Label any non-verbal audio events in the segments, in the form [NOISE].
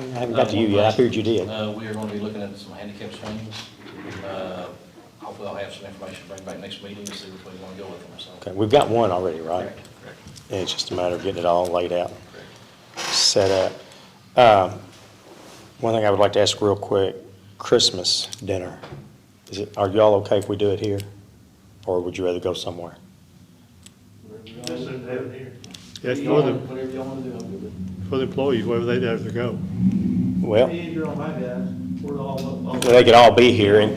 haven't got to you yet, I figured you did. Uh, we are going to be looking at some handicap swings. Uh, Hopefully I'll have some information to bring back next meeting to see which way we want to go with them, so. Okay, we've got one already, right? Correct, correct, And it's just a matter of getting it all laid out, correct. set up. Um, One thing I would like to ask real quick, Christmas dinner, is it, are y'all okay if we do it here? Or would you rather go somewhere? Just to have it here. That's You for all- the, Whatever y'all want to do, I'm good with it. for the employees, wherever they have to go. Well, Me and your old man, guys, we're all up. all- they could all be here, and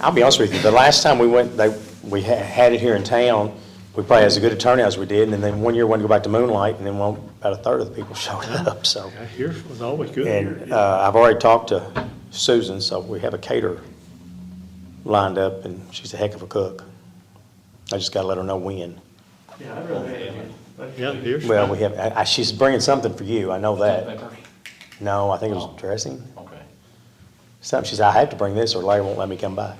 I'll be honest with you, the last time we went, they, we ha- had it here in town, we probably had as good a turnout as we did, and then one year wanted to go back to Moonlight, and then one, about a third of the people [LAUGHS] showed up, so. Yeah, Here was always good. And uh, I've already talked to Susan, so we have a caterer lined up, and she's a heck of a cook. I just gotta let her know when. Yeah, I'd rather have it. But- Yeah, here's. Well, we have, I- I- she's bringing something for you, I know that. Paper? No, I think it was dressing, Okay. something, she said, I have to bring this, or Larry won't let me come by.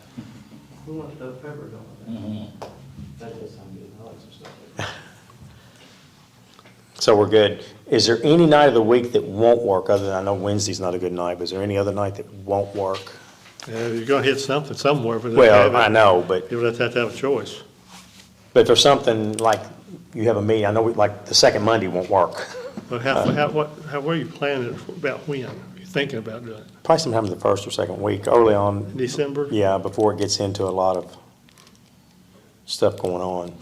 Who wants to have pepper going? That does sound good, I like some stuff. like that. So we're good. Is there any night of the week that won't work, other than, I know Wednesday's not a good night, but is there any other night that won't work? Yeah, You're gonna hit something somewhere, but. they have Well, it. I know, but You'll have to have a choice. But if there's something like, you have a meeting, I know, we- like, the second Monday won't work. But how, Uh, how, what, how, where you planning it, about when? You thinking about doing it? Probably sometime in the first or second week, early on, December? yeah, before it gets into a lot of stuff going on.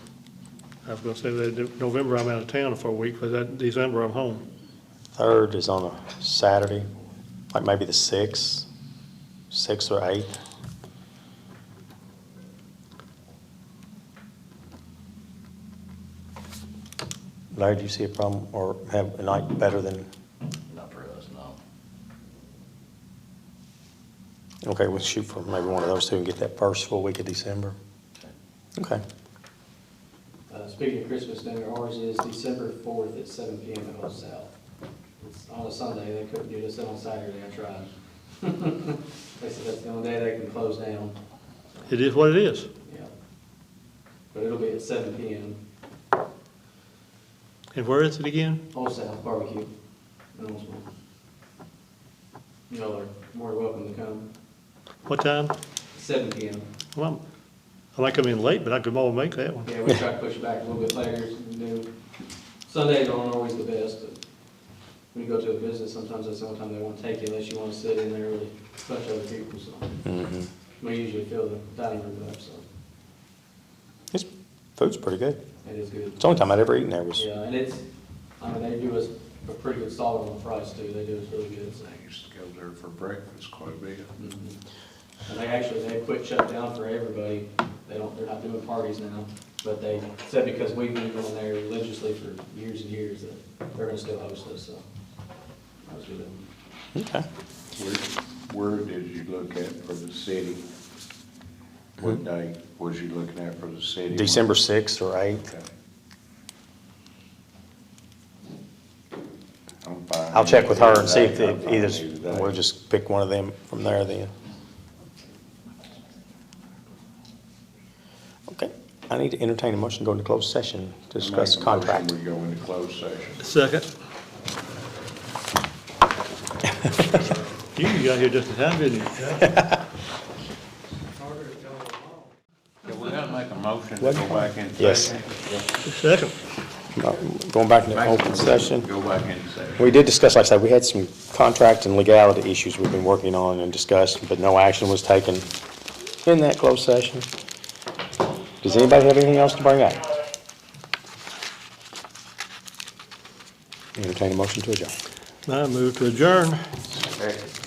I was gonna say that November I'm out of town for a week, but that December I'm home. Third is on a Saturday, like maybe the sixth, sixth or eighth. Larry, do you see a problem, or have a night better than, Not for us, no. okay, we'll shoot for maybe one of those two and get that first full week of December? Okay. Uh, Speaking of Christmas dinner, ours is December fourth at seven P M at Old South. It's on a Sunday, they couldn't do this on Saturday, I tried. [LAUGHS] They said that's the only day they can close down, It is what it is. yeah. But it'll be at seven P M, And where is it again? Old South Barbecue in Owensboro. Y'all are more than welcome to come, What time? seven P M. Well, I'm- I might come in late, but I could all make that one. Yeah, we try to push it back a little bit later, you know, Sundays aren't always the best, but when you go to a business, sometimes that's the only time they won't take you unless you wanna sit in there with a bunch of other people, so. Mm-hmm. We usually fill the dining room up, so This food's pretty good. it is good. It's the only time I'd ever eaten there was, Yeah, and it's, I mean, they do us a pretty good solid on the price too, they do us really good, so. I used to go there for breakfast quite a bit. Mhm. And they actually, they quit shut down for everybody, they don't, they're not doing parties now, but they said because we've been going there religiously for years and years, that they're gonna still host us, so. That was good. okay. Where, where did you look at for the city? What day was you looking at for the city? Hmm? December 6th or 8th. Okay. I'm fine. I'll check with her and see if I'm fine either, we'll day. just pick one of them from there then. Okay, I need to entertain a motion to go into closed session to I make discuss a motion contract. We go into closed session. Second. You got here just in time, didn't you? Yeah, we're gonna make a motion to go back in session. Yes. Second. Uh, Going back into open session. Go back in session. We did discuss, like I said, we had some contract and legality issues we've been working on and discussed, but no action was taken in that closed session. Does anybody have anything else to bring up? Entertain a motion to adjourn. I move to adjourn. Okay. Uh,